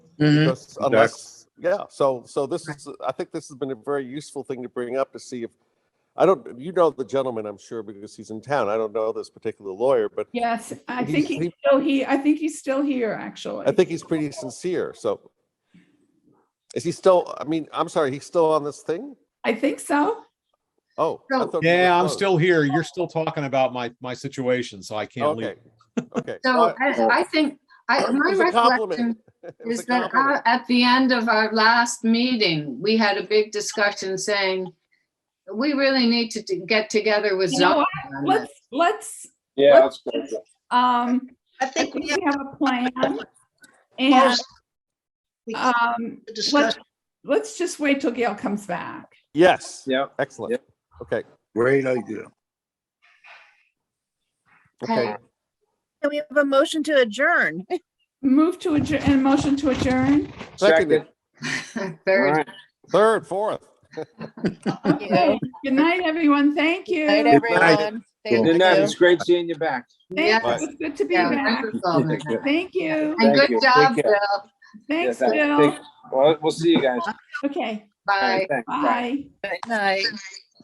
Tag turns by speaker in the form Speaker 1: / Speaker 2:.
Speaker 1: Mhm.
Speaker 2: Because unless, yeah, so, so this is, I think this has been a very useful thing to bring up to see if, I don't, you know the gentleman, I'm sure, because he's in town. I don't know this particular lawyer, but
Speaker 3: Yes, I
Speaker 2: He's-
Speaker 3: think
Speaker 2: he-
Speaker 3: he's still here. I think he's still here, actually.
Speaker 2: I think he's pretty sincere, so. Is he still, I mean, I'm sorry, he's still on this thing?
Speaker 3: I think so.
Speaker 2: Oh. I thought we were
Speaker 4: Yeah, I'm
Speaker 2: closed.
Speaker 4: still here. You're still talking about my, my situation, so I can't leave.
Speaker 2: Okay, okay.
Speaker 5: So
Speaker 2: Well,
Speaker 5: I, I think, I,
Speaker 2: It
Speaker 5: my
Speaker 2: was a compliment.
Speaker 5: recollection
Speaker 2: It was
Speaker 5: is
Speaker 2: a
Speaker 5: that uh,
Speaker 2: compliment.
Speaker 5: our- at the end of our last meeting, we had a big discussion saying, we really need to t- get together with
Speaker 3: You know
Speaker 5: zoning.
Speaker 3: what?
Speaker 5: on this."
Speaker 3: Let's, let's,
Speaker 6: Yeah,
Speaker 3: What-
Speaker 6: that's good.
Speaker 3: um,
Speaker 7: I
Speaker 3: I
Speaker 7: think
Speaker 3: think
Speaker 7: we
Speaker 3: we
Speaker 7: have
Speaker 3: have a plan. And,
Speaker 7: closed. We closed
Speaker 3: um,
Speaker 7: the
Speaker 3: let's,
Speaker 7: discussion.
Speaker 3: let's just wait till Gail comes back.
Speaker 2: Yes,
Speaker 6: Yeah.
Speaker 2: excellent. Okay,
Speaker 8: Great idea.
Speaker 2: okay.
Speaker 9: And we have a motion to adjourn.
Speaker 3: Move to adjourn, and motion to adjourn.
Speaker 2: Seconded,
Speaker 6: All
Speaker 5: Third,
Speaker 6: right.
Speaker 2: third, fourth.
Speaker 3: Okay. Good night, everyone. Thank you.
Speaker 9: Night,
Speaker 3: Thanks.
Speaker 8: Good night.
Speaker 9: everyone. Thank
Speaker 6: Good night.
Speaker 9: you.
Speaker 6: It's great seeing you back.
Speaker 5: yeah,
Speaker 3: It's good to be
Speaker 5: yeah,
Speaker 3: back.
Speaker 5: wonderful.
Speaker 6: Take care.
Speaker 3: Thank you.
Speaker 5: And
Speaker 6: Thank
Speaker 5: good
Speaker 6: you. Take
Speaker 5: job,
Speaker 6: care.
Speaker 5: Bill.
Speaker 6: Yeah,
Speaker 3: Thanks,
Speaker 6: thank-
Speaker 3: Bill.
Speaker 6: thank- Well, we'll see you guys.
Speaker 3: Okay,
Speaker 6: All
Speaker 5: Bye.
Speaker 6: right,
Speaker 3: bye.
Speaker 6: thanks.
Speaker 9: Night.